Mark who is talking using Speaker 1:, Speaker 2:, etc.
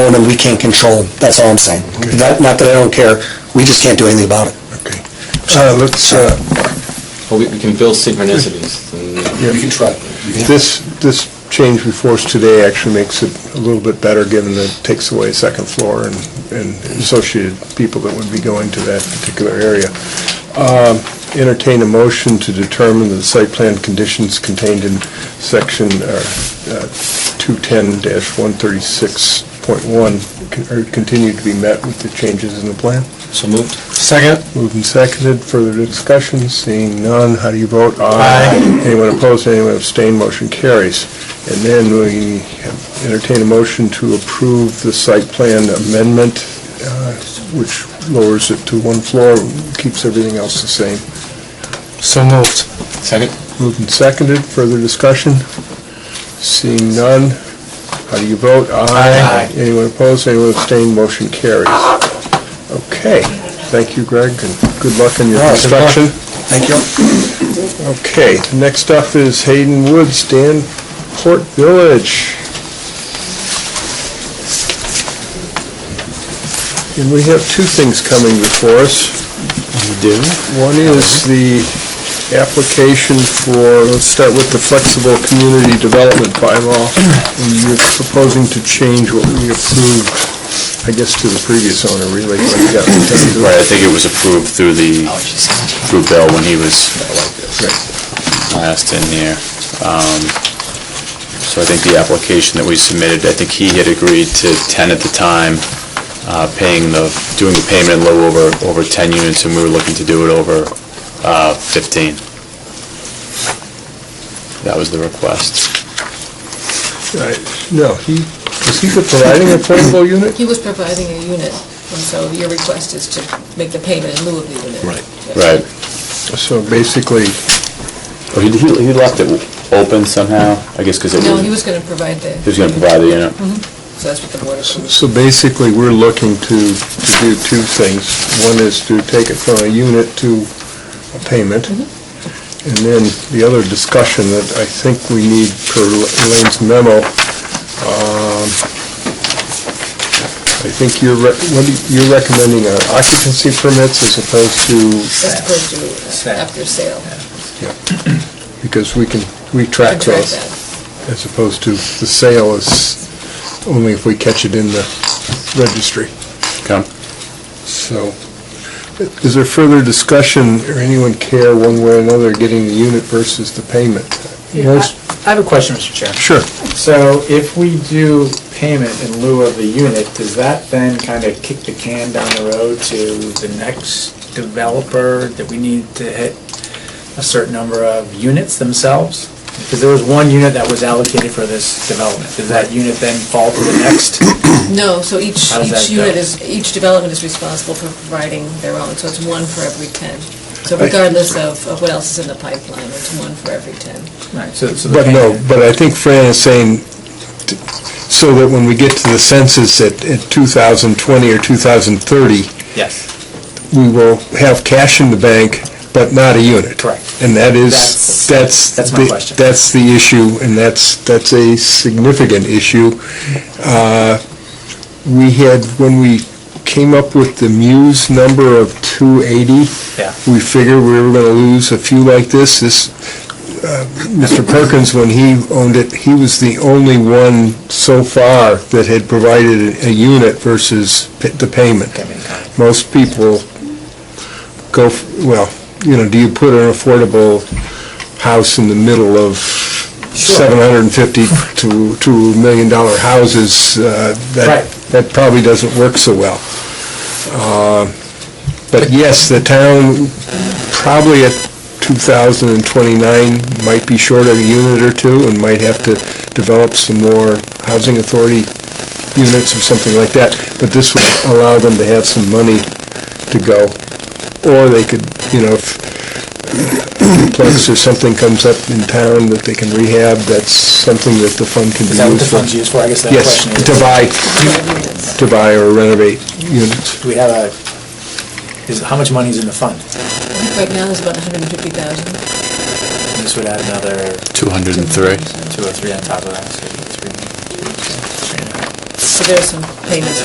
Speaker 1: firemen we can't control. That's all I'm saying.
Speaker 2: Okay.
Speaker 1: Not not that I don't care, we just can't do anything about it.
Speaker 2: Okay. Uh, Let's, uh,
Speaker 3: Well, we we can build synchronicities. and-
Speaker 2: Yeah.
Speaker 1: can try.
Speaker 2: this, this change we forced today actually makes it a little bit better, given that it takes away second floor and and associated people that would be going to that particular area. Um, Entertain a motion to determine that the site plan conditions contained in section uh, uh, 210-136.1 con- are continued to be met with the changes in the plan.
Speaker 3: So moved?
Speaker 2: Second. Moved and seconded. Further discussion? Seeing none, how do you vote? Aye. Anyone opposed, anyone abstained, motion carries. And then we entertain a motion to approve the site plan amendment, uh, which lowers it to one floor, keeps everything else the same.
Speaker 4: So moved.
Speaker 3: Second?
Speaker 2: Moved and seconded. Further discussion? Seeing none, how do you vote? Aye. Anyone opposed, anyone abstained, motion carries. Okay. Thank you, Greg, and good luck in your
Speaker 1: Yeah, good luck.
Speaker 2: construction.
Speaker 1: Thank you.
Speaker 2: Okay, next up is Hayden Woods, Danport Village. And we have two things coming before us.
Speaker 4: do?
Speaker 2: One is the application for, let's start with the flexible community development bylaw. And You're proposing to change what we approved, I guess, to the previous owner, really. but we got-
Speaker 5: Right, I think it was approved through the, through Bill when he was last in here. Um, So I think the application that we submitted, I think he had agreed to 10 at the time, uh, paying the, doing the payment in lieu over, over 10 units, and we were looking to do it over uh, 15. That was the request.
Speaker 2: Right. No, he, is he providing a portable unit?
Speaker 6: He was providing a unit, and so your request is to make the payment in lieu of the unit.
Speaker 2: Right.
Speaker 6: Yeah.
Speaker 5: Right.
Speaker 2: So basically,
Speaker 5: Oh, He he- he left it open somehow, I guess because it
Speaker 6: No, he
Speaker 5: was,
Speaker 6: was going to provide the...
Speaker 5: he was going to provide the unit.
Speaker 6: So that's what the board approved.
Speaker 2: so basically, we're looking to, to do two things. One is to take it from a unit to a payment. And then the other discussion that I think we need per Elaine's memo, um, I think you're, re- what do you- you're recommending uh, occupancy permits as opposed to,
Speaker 6: That's supposed to, uh, after sale,
Speaker 2: because we can, we track
Speaker 6: contract
Speaker 2: those.
Speaker 6: that.
Speaker 2: As opposed to the sale is only if we catch it in the registry.
Speaker 5: Okay.
Speaker 2: So, is there further discussion, or anyone care one way or another, getting the unit versus the payment? Yes.
Speaker 4: I have a question, Mr. Chair.
Speaker 2: Sure.
Speaker 4: So if we do payment in lieu of the unit, does that then kind of kick the can down the road to the next developer that we need to hit a certain number of units themselves? Because there was one unit that was allocated for this development. Does that unit then fall to the next?
Speaker 6: No, so each,
Speaker 4: How does
Speaker 6: each
Speaker 4: that go?
Speaker 6: unit is, each development is responsible for providing their own, so it's one for every 10. So regardless of of what else is in the pipeline, it's one for every 10.
Speaker 4: Right, so so the
Speaker 2: But no,
Speaker 4: payment-
Speaker 2: but I think Fran is saying, t- so that when we get to the census at, at 2020 or 2030,
Speaker 4: Yes.
Speaker 2: we will have cash in the bank, but not a unit.
Speaker 4: Correct.
Speaker 2: And that is, that's...
Speaker 4: That's- that's my
Speaker 2: the-
Speaker 4: question.
Speaker 2: That's the issue, and that's, that's a significant issue. Uh, We had, when we came up with the Muse number of 280...
Speaker 4: Yeah.
Speaker 2: We figured we were going to lose a few like this. This, uh, Mr. Perkins, when he owned it, he was the only one so far that had provided a unit versus p- the payment most people go, f- well, you know, do you put an affordable house in the middle of 750 to, to a million dollar houses? uh, that
Speaker 4: Right.
Speaker 2: That probably doesn't work so well. Uh, But yes, the town probably at 2029 might be short of a unit or two and might have to develop some more housing authority units or something like that, but this would allow them to have some money to go. Or they could, you know, if duplex or something comes up in town that they can rehab, that's something that the fund can be
Speaker 4: Is that what the
Speaker 2: used for.
Speaker 4: fund's used for? I guess that
Speaker 2: Yes,
Speaker 4: question is.
Speaker 2: to buy,
Speaker 6: Units.
Speaker 2: to buy or renovate units.
Speaker 4: Do we have a, is, how much money is in the fund?
Speaker 6: Right now, there's about 150,000.
Speaker 4: And this would add another
Speaker 5: 203.
Speaker 4: two or three on top of that, so three, three and a half.
Speaker 6: so there's some payments